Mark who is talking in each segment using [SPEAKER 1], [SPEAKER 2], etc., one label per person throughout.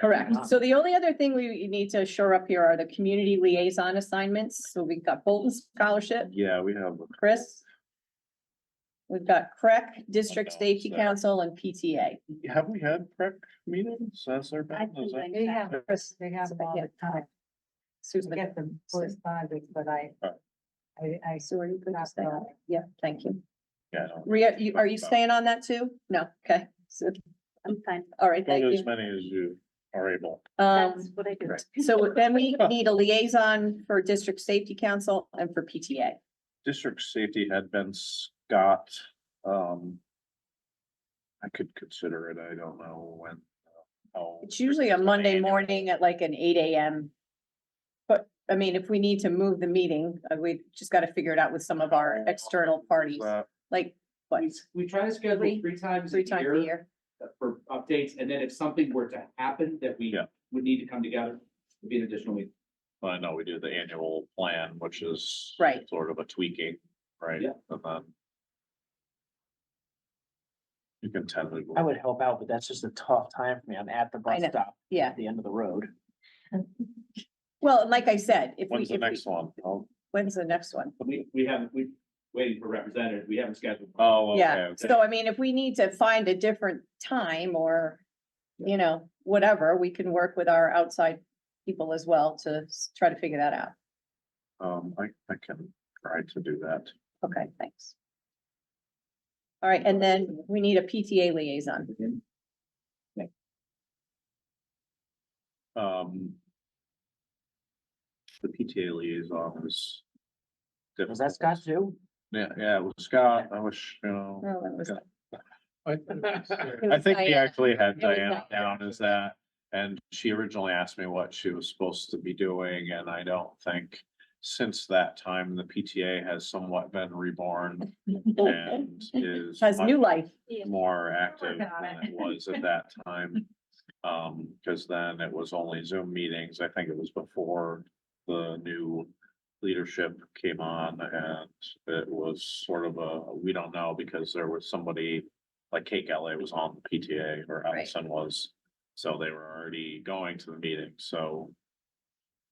[SPEAKER 1] Correct. So the only other thing we need to shore up here are the community liaison assignments. So we've got Bolton Scholarship,
[SPEAKER 2] Yeah, we have.
[SPEAKER 1] Chris. We've got CREC, District
[SPEAKER 2] Okay,
[SPEAKER 1] Safety
[SPEAKER 2] so-
[SPEAKER 1] Council and PTA.
[SPEAKER 2] Have we had prep meetings? Has there
[SPEAKER 3] I
[SPEAKER 2] been? Is
[SPEAKER 3] think
[SPEAKER 2] that-
[SPEAKER 3] they have, Chris, they have all the time.
[SPEAKER 1] Susan.
[SPEAKER 3] Forget the correspondence, but I,
[SPEAKER 2] Alright.
[SPEAKER 3] I, I sort of could not
[SPEAKER 1] stay on
[SPEAKER 3] know.
[SPEAKER 1] Yeah, thank you.
[SPEAKER 2] Yeah. I don't-
[SPEAKER 1] Ria, you, are you staying on that too? No, okay. So,
[SPEAKER 3] I'm fine.
[SPEAKER 1] all right, thank
[SPEAKER 2] Probably as
[SPEAKER 1] you.
[SPEAKER 2] many as you are able.
[SPEAKER 3] That's
[SPEAKER 1] Um,
[SPEAKER 3] what I do.
[SPEAKER 1] so then we need a liaison for District Safety Council and for PTA.
[SPEAKER 2] District safety had been Scott, um. I could consider it. I don't know when. uh, how
[SPEAKER 1] It's usually a
[SPEAKER 2] frequent
[SPEAKER 1] Monday
[SPEAKER 2] annual-
[SPEAKER 1] morning at like an eight AM. But, I mean, if we need to move the meeting, uh, we just gotta figure it out with some of our external parties,
[SPEAKER 2] That-
[SPEAKER 1] like, what,
[SPEAKER 4] We- We try to schedule
[SPEAKER 1] Three-
[SPEAKER 4] three times
[SPEAKER 1] three
[SPEAKER 4] a
[SPEAKER 1] times a
[SPEAKER 4] year
[SPEAKER 1] year?
[SPEAKER 4] for updates, and then if something were to happen that we
[SPEAKER 2] Yeah.
[SPEAKER 4] would need to come together, it'd be an additional week.
[SPEAKER 2] I know we do the annual plan, which is.
[SPEAKER 1] Right.
[SPEAKER 2] Sort of a tweaking, right?
[SPEAKER 4] Yeah.
[SPEAKER 2] And then. You can tentatively.
[SPEAKER 5] I would help out, but that's just a tough time for me. I'm at the
[SPEAKER 1] I
[SPEAKER 5] bus
[SPEAKER 1] know.
[SPEAKER 5] stop
[SPEAKER 1] Yeah,
[SPEAKER 5] at the end of the road.
[SPEAKER 1] well, and like I said, if we,
[SPEAKER 2] When's the
[SPEAKER 1] if we,
[SPEAKER 2] next one? Oh,
[SPEAKER 1] when's the next one?
[SPEAKER 4] We, we haven't, we, waiting for representatives, we haven't scheduled.
[SPEAKER 2] oh, okay,
[SPEAKER 1] Yeah,
[SPEAKER 2] okay.
[SPEAKER 1] so I mean, if we need to find a different time or, you know, whatever, we can work with our outside people as well to s- try to figure that out.
[SPEAKER 2] Um, I, I can try to do that.
[SPEAKER 1] Okay, thanks. All right, and then we need a PTA liaison.
[SPEAKER 2] Um. The PTA liaison was.
[SPEAKER 5] Was that Scott too?
[SPEAKER 2] Yeah, yeah, it was Scott. I wish, you know.
[SPEAKER 1] No, Oh, that was.
[SPEAKER 6] I think it's, uh,
[SPEAKER 1] it
[SPEAKER 2] I
[SPEAKER 1] was
[SPEAKER 2] think we
[SPEAKER 1] Diana.
[SPEAKER 2] actually had
[SPEAKER 1] It was
[SPEAKER 2] Diana down as that. And she originally asked me what she was supposed to be doing, and I don't think since that time, the PTA has somewhat been reborn and is.
[SPEAKER 1] Has new
[SPEAKER 2] much
[SPEAKER 1] life.
[SPEAKER 2] more active
[SPEAKER 3] working on
[SPEAKER 2] than
[SPEAKER 3] it.
[SPEAKER 2] it was at that time. Um, because then it was only Zoom meetings. I think it was before the new leadership came on and it was sort of a, we don't know because there was somebody like Kate LA was on the PTA or
[SPEAKER 1] Right.
[SPEAKER 2] Allison was. So they were already going to the meeting. So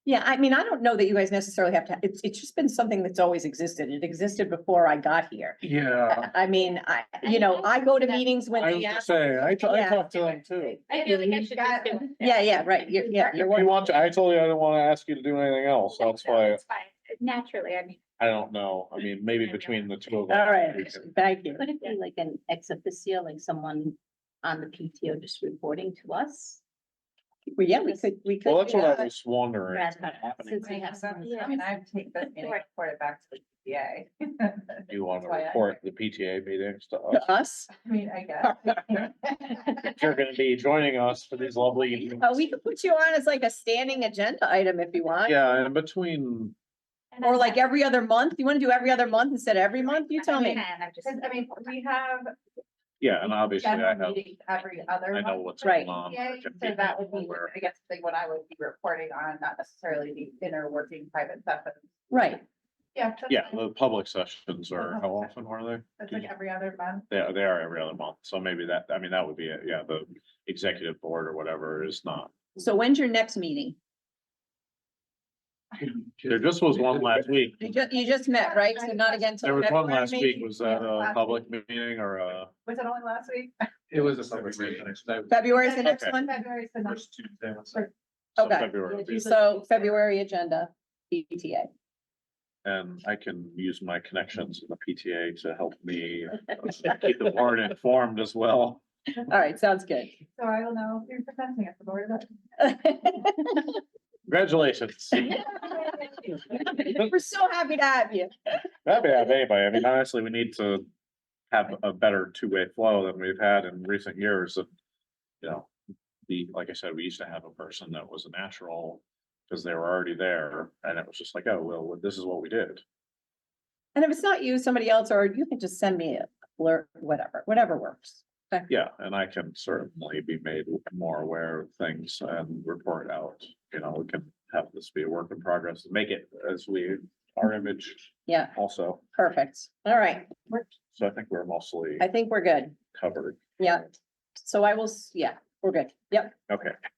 [SPEAKER 1] Yeah, I mean, I don't know that you guys necessarily have to, it's, it's just been something that's always existed. It existed before I got here.
[SPEAKER 6] yeah,
[SPEAKER 2] Uh-huh.
[SPEAKER 1] I I mean, I, you know, I go to meetings when
[SPEAKER 6] I
[SPEAKER 1] they
[SPEAKER 6] was gonna
[SPEAKER 1] ask.
[SPEAKER 6] say, I, t- I
[SPEAKER 1] Yeah.
[SPEAKER 6] talked to them too.
[SPEAKER 7] I feel like I should just do it.
[SPEAKER 1] Yeah, yeah, right. You're, yeah,
[SPEAKER 6] You
[SPEAKER 1] you're one.
[SPEAKER 6] want to, I told you I didn't wanna ask you to do anything else, that's why,
[SPEAKER 7] It's fine. Naturally, I mean.
[SPEAKER 2] I don't know. I mean, maybe between the two of us.
[SPEAKER 1] All right,
[SPEAKER 2] we can-
[SPEAKER 1] thank you.
[SPEAKER 3] Could it be like an ex officio, like someone on the PTO just reporting to us?
[SPEAKER 1] Well, Yeah, we could, we could.
[SPEAKER 2] Well, that's
[SPEAKER 1] do
[SPEAKER 2] what I
[SPEAKER 1] that.
[SPEAKER 2] was wondering.
[SPEAKER 3] Rather
[SPEAKER 5] not happening.
[SPEAKER 3] Since we have someone.
[SPEAKER 7] Yeah.
[SPEAKER 8] mean, I take that meeting,
[SPEAKER 7] Right.
[SPEAKER 8] report it back to the PTA.
[SPEAKER 2] Do you want to
[SPEAKER 8] That's why I-
[SPEAKER 2] report the PTA meetings to us?
[SPEAKER 1] To us?
[SPEAKER 8] I mean, I guess.
[SPEAKER 2] If You're gonna be joining us for these lovely evenings.
[SPEAKER 1] Uh, we could put you on as like a standing agenda item if you want.
[SPEAKER 2] Yeah, and in between,
[SPEAKER 7] and
[SPEAKER 1] Or
[SPEAKER 7] I'm
[SPEAKER 1] like
[SPEAKER 7] not-
[SPEAKER 1] every other month? You want to do every other month instead of every month? You tell
[SPEAKER 7] I'm
[SPEAKER 1] me.
[SPEAKER 7] not, I'm just-
[SPEAKER 8] 'Cause, I mean, we have
[SPEAKER 2] yeah, and obviously I
[SPEAKER 8] general
[SPEAKER 2] have,
[SPEAKER 8] meetings every other
[SPEAKER 2] I know
[SPEAKER 8] month.
[SPEAKER 2] what's
[SPEAKER 1] Right.
[SPEAKER 2] going on.
[SPEAKER 8] PTA,
[SPEAKER 2] I can
[SPEAKER 8] So
[SPEAKER 2] be
[SPEAKER 8] that would be,
[SPEAKER 2] aware.
[SPEAKER 8] I guess, like what I would be reporting on, not necessarily the inner working private stuff. but-
[SPEAKER 1] Right.
[SPEAKER 8] Yeah. that's
[SPEAKER 2] Yeah,
[SPEAKER 8] fine.
[SPEAKER 2] the public sessions are, how often are
[SPEAKER 8] That's
[SPEAKER 2] they?
[SPEAKER 8] like every other month.
[SPEAKER 2] They are, they are every other month, so maybe that, I mean, that would be, it. yeah, the executive board or whatever is not.
[SPEAKER 1] So when's your next meeting?
[SPEAKER 2] There just was one last week.
[SPEAKER 1] You ju- you just met, right? So not again till.
[SPEAKER 2] There was one
[SPEAKER 1] February,
[SPEAKER 2] last week.
[SPEAKER 1] maybe?
[SPEAKER 2] Was that a
[SPEAKER 8] Last
[SPEAKER 2] public meeting or a?
[SPEAKER 8] Was it only last week?
[SPEAKER 6] It was a summer meeting.
[SPEAKER 1] February is the next
[SPEAKER 2] Okay.
[SPEAKER 1] one?
[SPEAKER 8] February, so not-
[SPEAKER 6] First Tuesday, what's
[SPEAKER 8] Sure.
[SPEAKER 2] so
[SPEAKER 1] Okay.
[SPEAKER 2] February would be-
[SPEAKER 1] So February agenda, E PTA.
[SPEAKER 2] And I can use my connections in the PTA to help me uh, keep the board informed as well.
[SPEAKER 1] All right, sounds good.
[SPEAKER 8] so I will know if you're presenting at the board of.
[SPEAKER 2] Congratulations.
[SPEAKER 1] We're so happy to have you.
[SPEAKER 2] That'd be have anybody. I mean, honestly, we need to have a better two-way flow than we've had in recent years. of, You know, the, like I said, we used to have a person that was a natural because they were already there and it was just like, oh, well, this is what we did.
[SPEAKER 1] And if it's not you, somebody else, or you can just send me a blur, whatever, whatever works.
[SPEAKER 2] Yeah, and I can certainly be made more aware of things and report out. You know, we can have this be a work in progress, and make it as we, our image
[SPEAKER 1] Yeah,
[SPEAKER 2] also.
[SPEAKER 1] perfect. All right,
[SPEAKER 2] So I think we're mostly
[SPEAKER 1] I think we're good.
[SPEAKER 2] covered.
[SPEAKER 1] Yeah. So I will, s- yeah, we're good. Yep.
[SPEAKER 2] Okay,